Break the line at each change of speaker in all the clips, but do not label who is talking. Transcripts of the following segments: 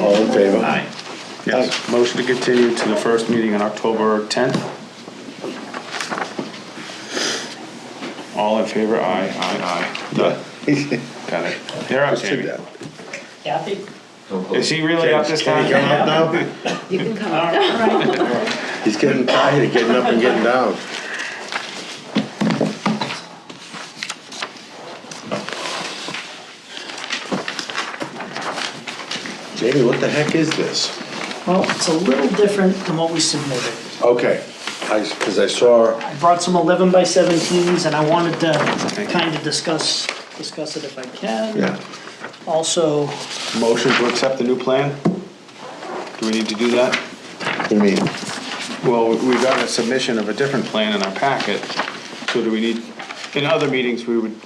All in favor?
Aye. Yes, motion to continue to the first meeting on October 10th. All in favor, aye, aye, aye. Done. Got it. You're up,
Did
Jamie.
that.
Kathy?
Is he really up this
Can he
time?
come up now?
You can come up.
He's getting tired of getting up and getting down. Jamie, what the heck is this?
Well, it's a little different than what we submitted.
Okay, I, because I saw,
I brought some 11 by 17s, and I wanted to kind of discuss, discuss it if I can.
yeah,
Also,
Motion to accept the new plan? Do we need to do that?
I mean,
Well, we got a submission of a different plan in our packet, so do we need, in other meetings, we would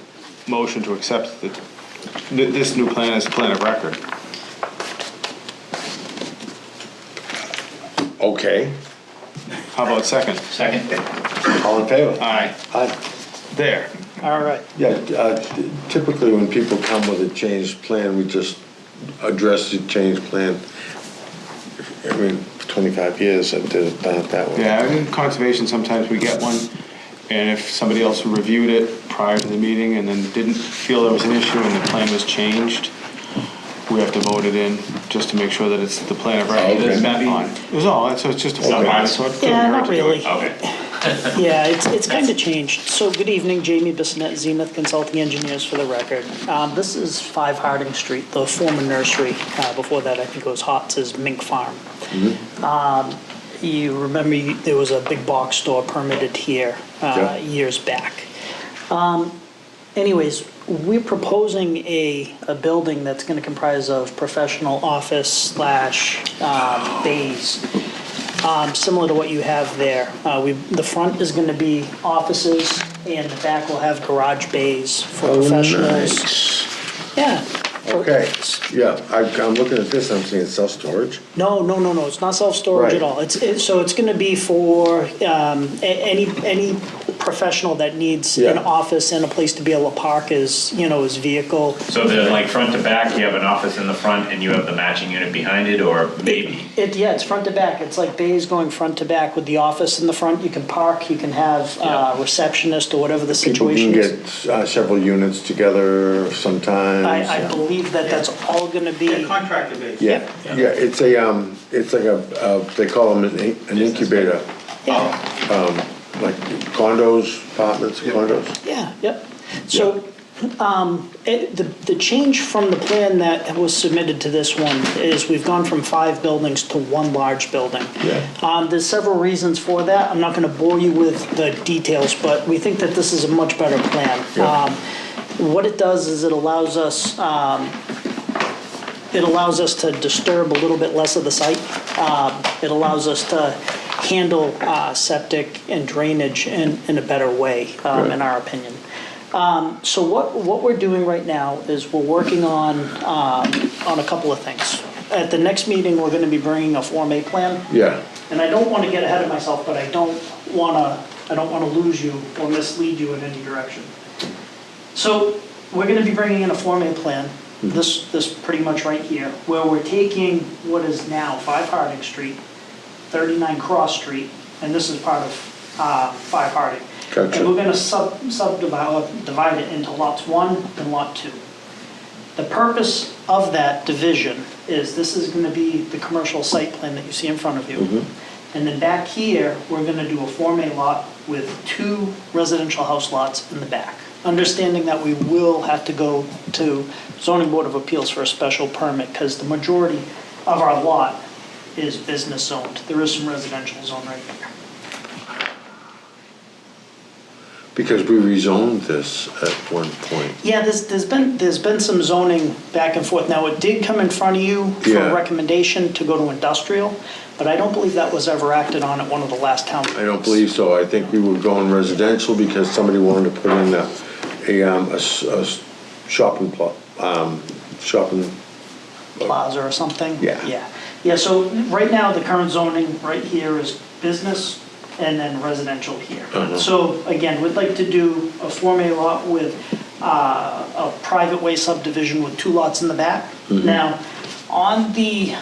motion to accept the, th- this new plan as a plan of record.
okay,
How about second?
Second.
all in favor?
Aye.
I,
There.
all right,
yeah, uh, typically when people come with a changed plan, we just address the changed plan. I mean, for twenty-five years, I've done it that way.
Yeah, in conservation, sometimes we get one, and if somebody else reviewed it prior to the meeting and then didn't feel there was an issue and the plan was changed, we have to vote it in, just to make sure that it's the plan of record that's met on. It was all, so it's just a formality, so it couldn't
Yeah,
hurt
not
to do it.
really.
Okay.
Yeah, it's, it's kind of changed. So good evening, Jamie Bissonette, Zenith Consulting Engineers for the record. Um, This is 5 Harding Street, the former nursery. Uh, Before that, I think it was Hotz's Mink Farm.
Mm-hmm.
Um, You remember, you- there was a big box store permitted here uh,
Yeah.
years back. Um, Anyways, we're proposing a, a building that's going to comprise of professional office slash um, bays um, similar to what you have there. Uh, we, the front is gonna be offices, and the back will have garage bays for professionals. Yeah.
Oh, Okay, yeah, I, I'm looking at this, I'm seeing self-storage.
No, no, no, no, it's not self-storage at
Right.
all. It's, it- so it's gonna be for, um, a- any, any professional that needs an
Yeah.
office and a place to be able to park his, you know, his vehicle.
So they're like front to back, you have an office in the front and you have the matching unit behind it, or maybe?
It, yeah, it's front to back. It's like bays going front to back with the office in the front. You can park, you can have, uh, receptionist or whatever the
People
situation is.
can get uh, several units together sometimes.
I, I believe that that's all gonna be,
Contractor base.
Yeah, yeah, it's a, um, it's like a, uh, they call them an in- an incubator, Um,
yeah,
like condos, apartments, condos.
yeah, yep. So, um, it, the, the change from the plan that was submitted to this one is we've gone from five buildings to one large building.
Yeah.
Um, there's several reasons for that. I'm not gonna bore you with the details, but we think that this is a much better plan.
Yeah.
Um, What it does is it allows us, um, it allows us to disturb a little bit less of the site. Um, It allows us to handle uh, septic and drainage in, in a better way, um, in our opinion. Um, So what, what we're doing right now is we're working on, um, on a couple of things. At the next meeting, we're gonna be bringing a Form A plan
Yeah,
and I don't want to get ahead of myself, but I don't want to, I don't want to lose you or mislead you in any direction. So we're going to be bringing in a Form A plan, this, this pretty much right here, where we're taking what is now 5 Harding Street, 39 Cross Street, and this is part of uh, 5 Harding.
Gotcha.
And we're going to sub subdivide divide it into lots 1 and lot 2. The purpose of that division is this is going to be the commercial site plan that you see in front of you. And then back here, we're going to do a Form A lot with two residential house lots in the back. Understanding that we will have to go to zoning board of appeals for a special permit because the majority of our lot is business zoned. There is some residential zone right there.
because we rezoned this at one point.
Yeah, there's, there's been, there's been some zoning back and forth. Now, it did come in front of you for
Yeah.
a recommendation to go to industrial, but I don't believe that was ever acted on at one of the last town meetings.
I don't believe so, I think we were going residential because somebody wanted to put in a, a, um, a s- a s- shopping plot, um, shopping,
Plaza or something?
Yeah.
Yeah, yeah, so right now, the current zoning right here is business and then residential here. So again, we'd like to do a Form A lot with uh, a private way subdivision with two lots in the back. Now, on the